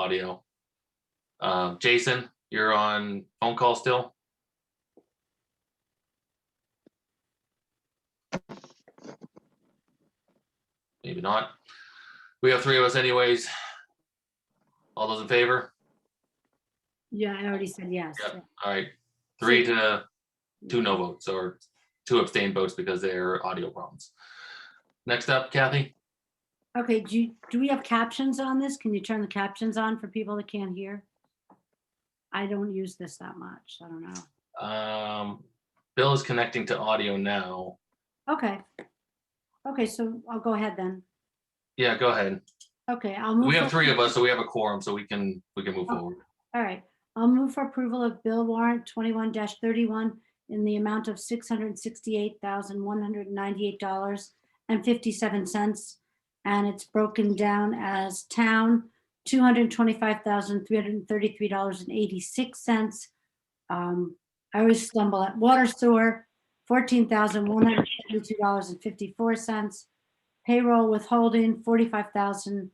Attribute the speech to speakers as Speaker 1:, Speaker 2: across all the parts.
Speaker 1: audio. Um, Jason, you're on phone call still? Maybe not. We have three of us anyways. All those in favor?
Speaker 2: Yeah, I already said yes.
Speaker 1: Yep. All right, three to two no votes or two abstained votes because they're audio problems. Next up, Kathy?
Speaker 2: Okay, do, you- do we have captions on this? Can you turn the captions on for people that can't hear? I don't use this that much. I don't know.
Speaker 1: Um, Bill is connecting to audio now.
Speaker 2: Okay. Okay, so I'll go ahead then.
Speaker 1: Yeah, go ahead.
Speaker 2: Okay, I'll move.
Speaker 1: We have
Speaker 2: for-
Speaker 1: three of us, so we have a quorum, so we can, we can move
Speaker 2: Oh.
Speaker 1: forward.
Speaker 2: All right, I'll move for approval of bill warrant twenty-one thirty-one in the amount of six hundred sixty-eight thousand, one hundred ninety-eight dollars and fifty-seven cents. And it's broken down as town, two hundred twenty-five thousand, three hundred thirty-three dollars and eighty-six cents. Um, I always stumble at water sewer, fourteen thousand, one hundred seventy-two dollars and fifty-four cents. Payroll withholding, forty-five thousand,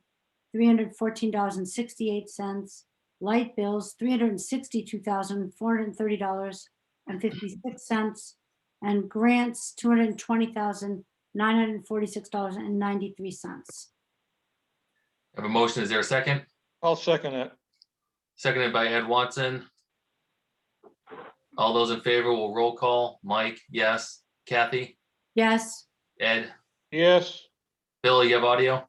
Speaker 2: three hundred fourteen dollars and sixty-eight cents light bills, three hundred and sixty-two thousand, four hundred and thirty dollars and fifty-six cents, and grants, two hundred and twenty thousand, nine hundred and forty-six dollars and ninety-three cents.
Speaker 1: Have a motion, is there a second?
Speaker 3: I'll second it.
Speaker 1: Seconded by Ed Watson. All those in favor will roll call. Mike, yes. Kathy,
Speaker 2: Yes,
Speaker 1: Ed,
Speaker 3: Yes,
Speaker 1: Bill, you have audio?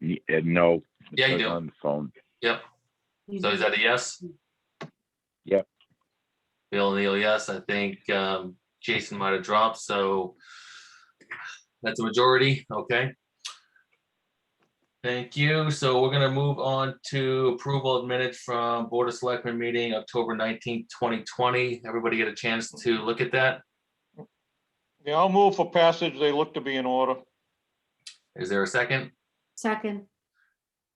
Speaker 4: Ye- uh, No.
Speaker 1: Yeah, you
Speaker 4: because
Speaker 1: do.
Speaker 4: On the phone.
Speaker 2: you
Speaker 1: So is
Speaker 2: do. Mm.
Speaker 1: that a yes?
Speaker 4: Yep.
Speaker 1: Bill Neal, yes. I think um, Jason might have dropped, so that's a majority, okay? Thank you. So we're gonna move on to approval of minutes from Board of Selectmen meeting, October nineteenth, twenty twenty. Everybody get a chance to look at that?
Speaker 3: yeah, I'll move for passage. They look to be in order.
Speaker 1: Is there a second?
Speaker 2: Second,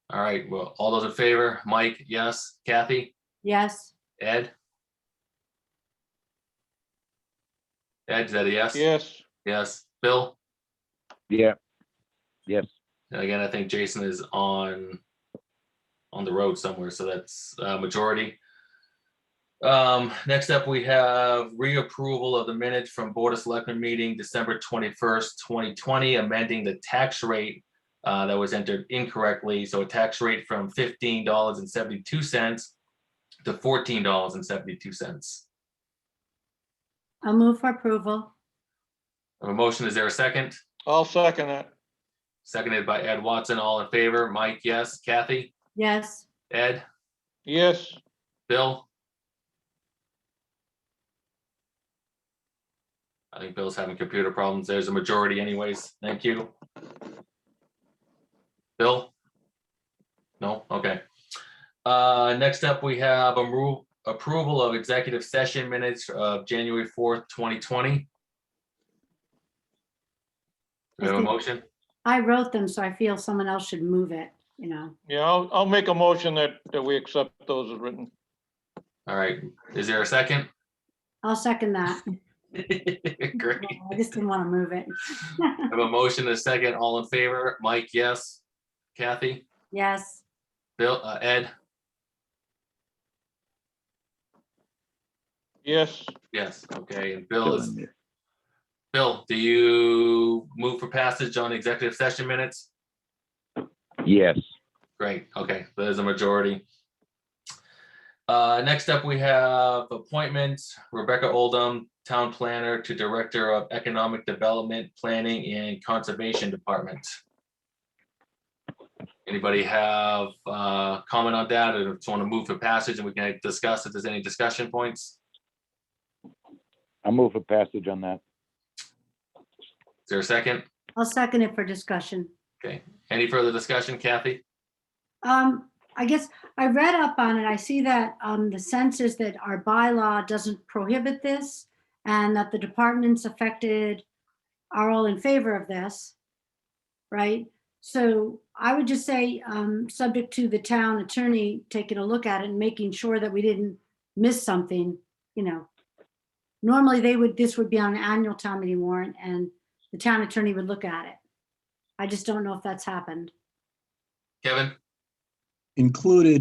Speaker 1: All right, well, all those in favor, Mike, yes, Kathy,
Speaker 2: yes,
Speaker 1: Ed? Ed, is that a yes?
Speaker 3: Yes,
Speaker 1: Yes, Bill?
Speaker 4: Yeah. Yes,
Speaker 1: And again, I think Jason is on, on the road somewhere, so that's uh, majority. Um, next up, we have reapproval of the minutes from Board of Selectmen meeting December twenty-first, twenty twenty, amending the tax rate uh, that was entered incorrectly, so a tax rate from fifteen dollars and seventy-two cents to fourteen dollars and seventy-two cents.
Speaker 2: I'll move for approval.
Speaker 1: A motion, is there a second?
Speaker 3: I'll second it.
Speaker 1: Seconded by Ed Watson, all in favor? Mike, yes. Kathy?
Speaker 2: Yes,
Speaker 1: Ed?
Speaker 3: Yes,
Speaker 1: Bill? I think Bill's having computer problems. There's a majority anyways. Thank you. Bill? No, okay. Uh, next up, we have a rule approval of executive session minutes of January fourth, twenty twenty. We have a motion?
Speaker 2: I wrote them, so I feel someone else should move it, you know.
Speaker 3: yeah, I'll, I'll make a motion that, that we accept those as written.
Speaker 1: All right. Is there a second?
Speaker 2: I'll second that.
Speaker 1: Great.
Speaker 2: I just didn't want to move it.
Speaker 1: I have a motion and a second. All in favor? Mike, yes. Kathy,
Speaker 2: Yes,
Speaker 1: Bill, uh, Ed,
Speaker 3: Yes,
Speaker 1: yes. Okay, and Bill
Speaker 4: still
Speaker 1: is,
Speaker 4: in there.
Speaker 1: Bill, do you move for passage on executive session minutes?
Speaker 4: yes,
Speaker 1: Great, okay, there's a majority. Uh, next up, we have appointments Rebecca Oldham, Town Planner to Director of Economic Development, Planning and Conservation Department. Anybody have uh comment on that or just want to move for passage and we can discuss if there's any discussion points?
Speaker 4: I'll move for passage on that.
Speaker 1: Is there a second?
Speaker 2: I'll second it for discussion.
Speaker 1: Any further discussion, Kathy?
Speaker 2: Um, I guess I read up on it. I see that, um, the sense is that our bylaw doesn't prohibit this and that the departments affected are all in favor of this. Right? So I would just say, um, subject to the town attorney taking a look at it and making sure that we didn't miss something, you know. Normally they would, this would be on an annual town meeting warrant and the town attorney would look at it. I just don't know if that's happened.
Speaker 1: Kevin?
Speaker 5: included